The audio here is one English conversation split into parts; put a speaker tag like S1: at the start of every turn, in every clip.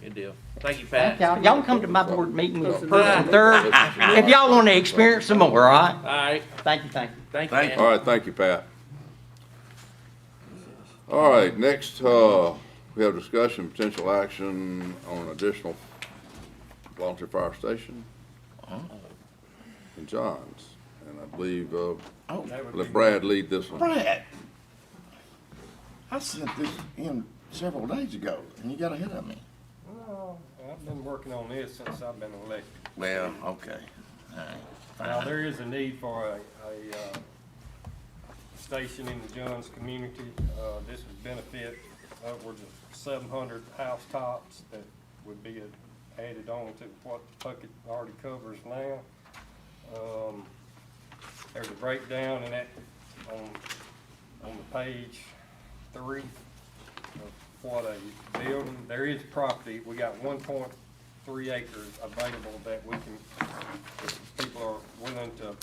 S1: Good deal. Thank you, Pat.
S2: Thank y'all. Y'all can come to my board meeting with
S1: Close enough.
S2: first and third, if y'all wanna experience some more, all right?
S1: All right,
S2: Thank you, thank you.
S1: thank you,
S3: Thank
S1: man.
S3: you.
S4: All right, thank you, Pat. All right, next, uh, we have discussion, potential action on additional volunteer fire station in Johns. And I believe, uh,
S3: Oh,
S4: let Brad lead this one.
S3: Brad, I sent this in several days ago, and you got ahead of me.
S5: Well, I've been working on this since I've been elected.
S3: Well, okay, all right.
S5: Now, there is a need for a, a, uh, station in the Johns community. Uh, this would benefit upwards of seven hundred house tops that would be added on to what Puckett already covers now. Um, there's a breakdown in that, on, on the page three of what a building, there is property, we got one point three acres available that we can, if people are willing to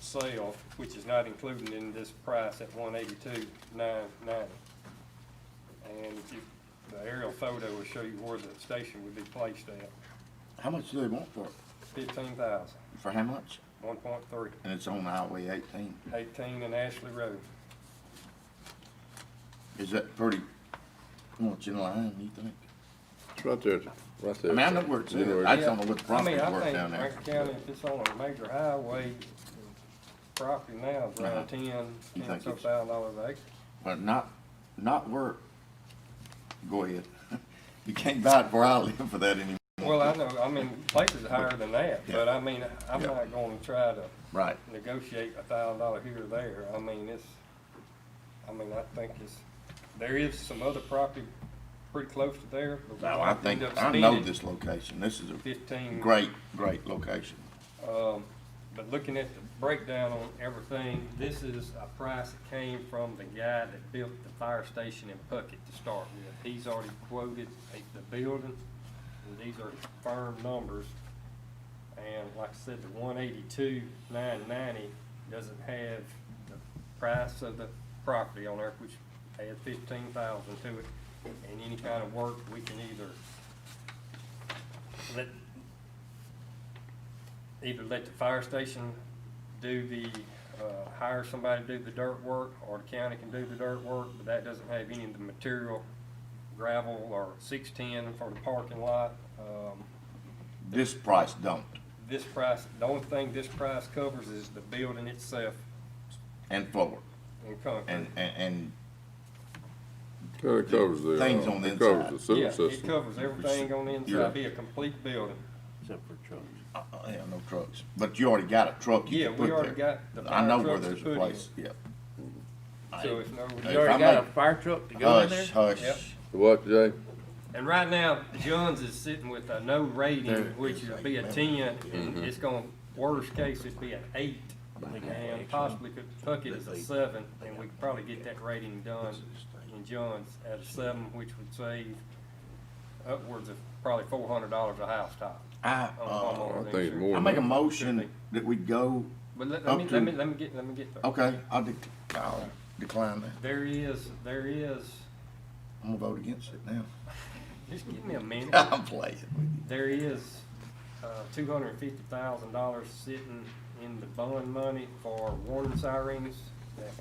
S5: sell, which is not included in this price at one eighty-two nine ninety. And if you, the aerial photo will show you where the station would be placed at,
S3: How much do they want for it?
S5: fifteen thousand,
S3: For how much?
S5: one point three,
S3: And it's on Highway eighteen.
S5: eighteen in Ashley Road.
S3: Is that pretty much in line, you think?
S4: It's right there, right
S3: I
S4: there.
S3: mean, I know where it's at. I just don't know what the
S5: I
S3: property
S5: mean, I
S3: worth
S5: think
S3: down there.
S5: Rankin County, if it's on a major highway, property now is
S3: Uh-huh.
S5: around ten,
S3: You
S5: ten
S3: think
S5: so
S3: it's-
S5: thousand dollars an acre.
S3: But not, not where, go ahead. You can't buy it where I live for that anymore.
S5: Well, I know, I mean, places are higher than that, but I mean, I'm
S3: Yeah.
S5: not gonna try to
S3: Right.
S5: negotiate a thousand dollar here or there. I mean, it's, I mean, I think it's, there is some other property pretty close to there, but we
S3: Now, I
S5: might
S3: think,
S5: end up
S3: I know
S5: spending
S3: this location. This is a
S5: fifteen.
S3: great, great location.
S5: Um, but looking at the breakdown on everything, this is a price that came from the guy that built the fire station in Puckett to start with. He's already quoted a- the building, and these are firm numbers. And like I said, the one eighty-two, nine ninety doesn't have the price of the property on there, which adds fifteen thousand to it. And any kind of work, we can either let either let the fire station do the, uh, hire somebody to do the dirt work, or the county can do the dirt work, but that doesn't have any of the material, gravel or six-ten for the parking lot. Um,
S3: This price don't.
S5: this price, the only thing this price covers is the building itself
S3: And floor.
S5: and
S3: And,
S5: concrete.
S3: and, and
S4: Yeah, It covers the,
S3: Things on
S4: uh,
S3: the
S4: it covers
S3: inside.
S4: the
S5: Yeah,
S4: sewer
S5: it
S4: system.
S5: covers everything on the
S3: Yeah.
S5: inside, be a complete building.
S3: Uh, uh, yeah, no trucks, but you already got a truck you
S5: Yeah,
S3: can
S5: we
S3: put
S5: already
S3: there.
S5: got the
S3: I know
S5: fire
S3: where
S5: trucks to
S3: there's
S5: put
S3: a
S5: in.
S3: place, yeah.
S5: So if no.
S1: You already
S3: I Uh,
S1: got a
S3: make-
S1: fire truck to go in there?
S3: Hush,
S5: Yep.
S3: hush.
S4: What, Jay?
S5: And right now, Johns is sitting with a no rating, which would be a ten, and it's gonna, worst case, it'd be an eight. And possibly could Puckett is a seven, and we could probably get that rating done in Johns at a seven, which would save upwards of probably four hundred dollars a house top.
S3: I,
S5: on
S3: uh,
S5: homeowner
S4: I think it's
S5: insurance.
S4: more
S3: I
S4: than
S3: make a
S4: that.
S3: motion that we go,
S5: But let,
S3: up
S5: let me,
S3: to-
S5: let me, let me get, let me get there.
S3: okay, I'll dec I'll decline that.
S5: There is, there is,
S3: I'm gonna vote against it now.
S5: just give me a minute.
S3: I'm playing with you.
S5: There is, uh, two hundred and fifty thousand dollars sitting in the bond money for warning sirens that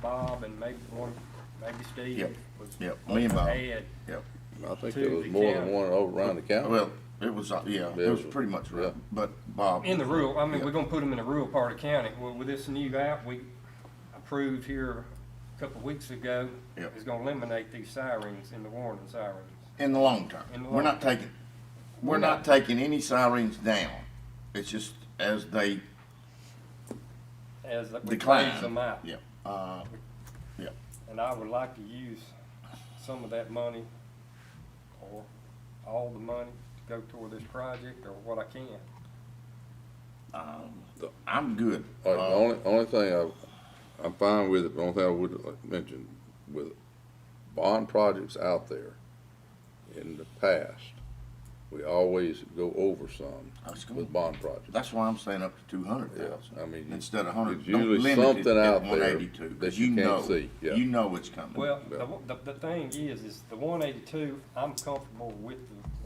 S5: Bob and maybe one, maybe
S3: Yep,
S5: Steve was.
S3: yep, me and Bob.
S5: Had,
S3: Yep.
S4: I think
S5: to
S4: there was
S5: the
S4: more than
S5: county.
S4: one over around the county.
S3: Well, it was, uh, yeah, it was pretty much right, but Bob.
S5: in the rural, I mean, we're
S3: Yep.
S5: gonna put them in the rural part of county. Well, with this new app we approved here a couple of weeks ago,
S3: Yep.
S5: is gonna eliminate these sirens in the warning sirens.
S3: In the long term.
S5: In the
S3: We're
S5: long
S3: not taking, we're not taking any sirens down. It's just as they
S5: As we
S3: decline.
S5: phase them out.
S3: Yeah, uh, yeah.
S5: And I would like to use some of that money, or all the money, to go toward this project, or what I can.
S3: Um, I'm good.
S4: All right,
S3: Uh,
S4: the only, only thing I, I'm fine with it, but the only thing I would like to mention with bond projects out there in the past, we always go over some
S3: I was gonna-
S4: with bond projects.
S3: That's why I'm saying up to two hundred thousand.
S4: Yeah, I mean,
S3: Instead of hundred,
S4: there's
S3: don't
S4: usually
S3: limit it
S4: something
S3: at
S4: out there
S3: one eighty-two,
S4: that
S3: cause
S4: you
S3: you
S4: can't
S3: know,
S4: see, yeah.
S3: you know it's coming.
S5: Well,
S4: Yeah.
S5: the, the, the thing is, is the one eighty-two, I'm comfortable with the